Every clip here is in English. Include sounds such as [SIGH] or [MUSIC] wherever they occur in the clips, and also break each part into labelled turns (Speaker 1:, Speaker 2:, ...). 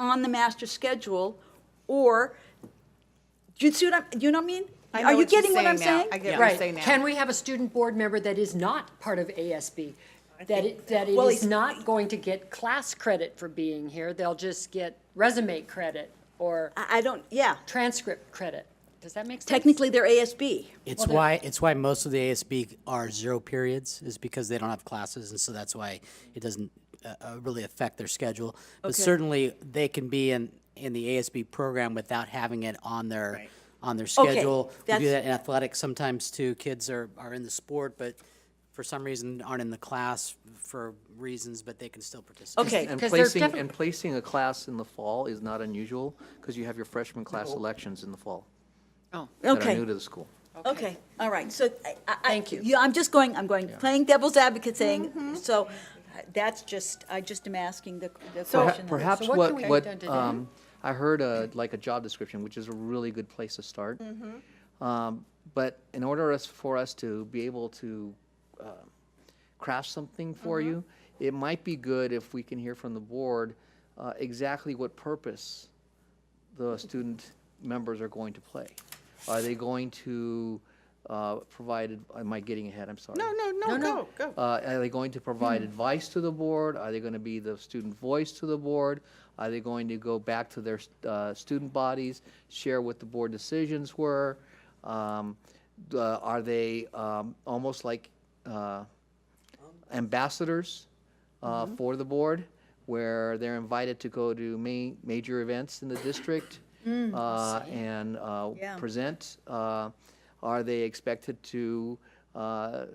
Speaker 1: on the master schedule, or, do you see what I'm, you know what I mean?
Speaker 2: I know
Speaker 1: Are you
Speaker 2: what you're
Speaker 1: getting what I'm
Speaker 2: now.
Speaker 1: saying?
Speaker 2: I get what you're
Speaker 3: Right.
Speaker 2: saying now.
Speaker 3: Can we have a student board member that is not part of ASB? That it, that it
Speaker 1: Well,
Speaker 3: is
Speaker 1: he's-
Speaker 3: not going to get class credit for being here, they'll just get resume credit or
Speaker 1: I, I don't, yeah,
Speaker 3: transcript credit. Does that make sense?
Speaker 1: technically they're ASB.
Speaker 4: It's why, it's why most of the ASB are zero periods, is because they don't have classes, and so that's why it doesn't uh, uh, really affect their schedule. But certainly, they can be in, in the ASB program without having it on their, on their schedule. We do
Speaker 1: that's-
Speaker 4: that in athletics sometimes too, kids are, are in the sport, but for some reason aren't in the class for reasons, but they can still participate.
Speaker 1: Okay.
Speaker 5: And
Speaker 3: 'Cause there's
Speaker 5: placing,
Speaker 3: definite-
Speaker 5: and placing a class in the fall is not unusual, because you have your freshman class elections in the fall that are
Speaker 1: Okay.
Speaker 5: new to the school.
Speaker 1: Okay, all right, so I- I. I-
Speaker 3: Thank you.
Speaker 1: Yeah, I'm just going, I'm going, playing devil's advocate
Speaker 2: Mm-hmm.
Speaker 1: saying, so uh, that's just, I just am asking the the
Speaker 5: Perha-
Speaker 1: question.
Speaker 5: Perhaps
Speaker 3: So what
Speaker 5: what,
Speaker 3: can we do
Speaker 5: what,
Speaker 3: today?
Speaker 5: um, I heard a, like a job description, which is a really good place to start.
Speaker 3: Mm-hmm.
Speaker 5: Um, But in order us, for us to be able to um, craft something for
Speaker 3: Mm-hmm.
Speaker 5: you, it might be good if we can hear from the board uh, exactly what purpose the student members are going to play. Are they going to uh, provide, am I getting ahead? I'm sorry.
Speaker 2: No, no, no, go, go. Hmm.
Speaker 5: Uh, Are they going to provide advice to the board? Are they going to be the student voice to the board? Are they going to go back to their uh, student bodies, share what the board decisions were? Um, d- uh, Are they um, almost like uh, ambassadors uh,
Speaker 2: Mm-hmm.
Speaker 5: for the board, where they're invited to go to ma- major events in the district
Speaker 2: Mm,
Speaker 5: uh, and uh,
Speaker 1: Yeah.
Speaker 5: present? Uh, Are they expected to uh,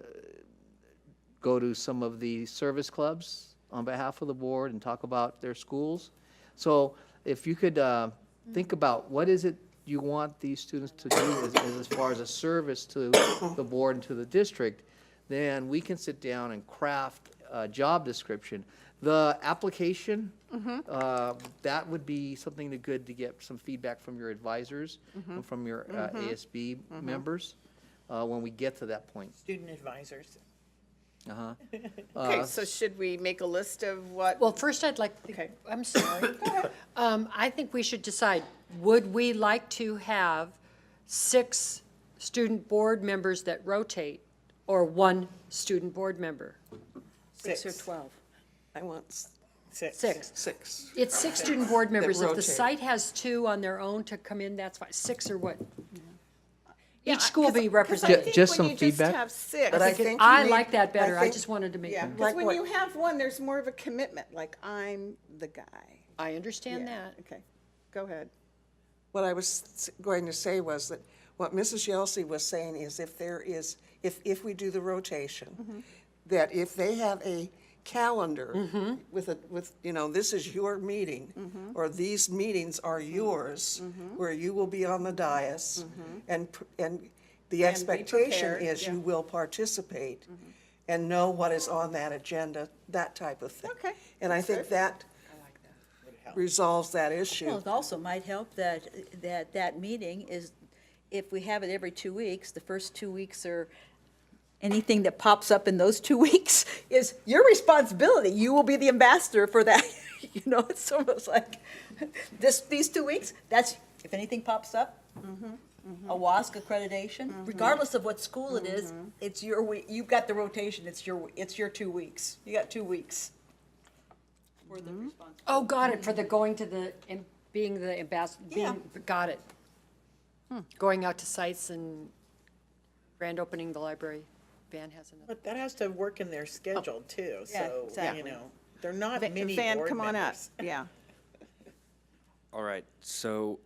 Speaker 5: go to some of the service clubs on behalf of the board and talk about their schools. So if you could uh, think about what is it you want these students to do as, as- as far as a service to the board and to the district, then we can sit down and craft a job description. The application, uh, that would be something to good to get some feedback from your advisors and from your uh, ASB members uh, when we get to that point.
Speaker 6: Student advisors.
Speaker 5: Uh-huh.
Speaker 2: Okay, so should we make a list of what?
Speaker 3: Well, first I'd like,
Speaker 2: Okay.
Speaker 1: [LAUGHS]
Speaker 3: I'm sorry. Um, I think we should decide, would we like to have six student board members that rotate or one student board member?
Speaker 1: Six or 12.
Speaker 6: I want s- six.
Speaker 3: Six.
Speaker 6: Six.
Speaker 3: It's six student board members. If the
Speaker 6: rotate.
Speaker 3: site has two on their own to come in, that's fine. Six or what?
Speaker 2: Uh,
Speaker 3: Each school be represented.
Speaker 5: think just when some you just feedback.
Speaker 2: have
Speaker 5: have
Speaker 2: six.
Speaker 6: But I think you
Speaker 3: I
Speaker 6: need-
Speaker 3: like that better. I
Speaker 6: think-
Speaker 3: just wanted to make,
Speaker 2: Yeah, because
Speaker 6: Like
Speaker 2: when
Speaker 6: what?
Speaker 2: you have one, there's more of a commitment, like I'm the guy.
Speaker 3: I understand
Speaker 2: Yeah,
Speaker 3: that.
Speaker 2: Okay, go ahead.
Speaker 6: What I was s- going to say was that what Mrs. Yelsey was saying is if there is, if, if we do the
Speaker 2: Mm-hmm.
Speaker 6: rotation, that if they have a
Speaker 2: Mm-hmm.
Speaker 6: calendar with a, with, you know, this is your meeting, or these meetings are
Speaker 2: Mm-hmm.
Speaker 6: yours, where you will be on the dais, and, pr- and the expectation
Speaker 2: Mm-hmm. prepared,
Speaker 6: is
Speaker 2: yeah. Mm-hmm.
Speaker 6: you will participate and know what is on that agenda, that type of thing.
Speaker 2: Okay,
Speaker 6: And I think that resolves that issue.
Speaker 1: Well, it also might help that, that, that meeting is, if we have it every two weeks, the first two weeks are, anything that pops up in those two [LAUGHS] weeks is your responsibility. You will be the ambassador for that. [LAUGHS] You know, it's almost like, this, these two weeks, that's, if anything pops up, a WASC accreditation, regardless of what school it is, it's your, we- you've got the rotation, it's your, it's your two weeks. You got two weeks. For the responsibility.
Speaker 3: Oh, got it, for the going to the, and being the ambassador,
Speaker 1: Yeah.
Speaker 3: being, got it. Going out to sites and grand opening the library. Van has another.
Speaker 6: But that has to work in their schedule too,
Speaker 1: Yeah,
Speaker 6: so,
Speaker 1: exactly.
Speaker 6: you know, they're not
Speaker 2: Va-
Speaker 6: mini
Speaker 2: Van,
Speaker 6: board
Speaker 2: come on up,
Speaker 6: members.
Speaker 2: yeah.
Speaker 7: All right. So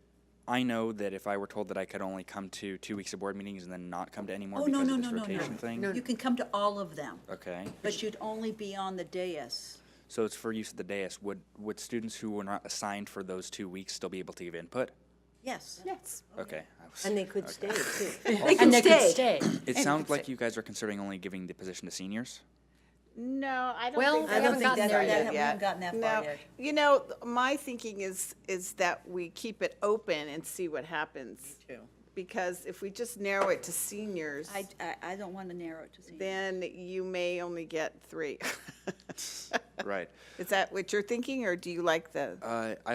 Speaker 7: I know that if I were told that I could only come to two weeks of board meetings and then not come to any more
Speaker 1: Oh,
Speaker 7: because
Speaker 1: no, no,
Speaker 7: of this
Speaker 1: no, no,
Speaker 7: rotation thing.
Speaker 1: no. You can come to all of them,
Speaker 7: Okay.
Speaker 1: but you'd only be on the dais.
Speaker 7: So it's for use of the dais. Would would students who were not assigned for those two weeks still be able to give input?
Speaker 1: Yes.
Speaker 2: Yes.
Speaker 7: Okay. I was-
Speaker 8: And they could stay too.
Speaker 1: They
Speaker 3: And they could stay.
Speaker 7: it sounds like you guys are considering only giving the position to seniors.
Speaker 2: No, I don't
Speaker 3: Well,
Speaker 2: think
Speaker 3: I
Speaker 2: that-
Speaker 3: don't think that's-
Speaker 2: started
Speaker 3: that-
Speaker 1: we haven't gotten that far
Speaker 2: No.
Speaker 1: yet.
Speaker 2: You know, th- my thinking is, is that we keep it open and see what happens.
Speaker 6: too.
Speaker 2: Because if we just narrow it to seniors,
Speaker 1: I, I, I don't want to narrow it to seniors.
Speaker 2: then you may only get three. [LAUGHS]
Speaker 7: Right.
Speaker 2: Is that what you're thinking, or do you like the?
Speaker 7: Uh,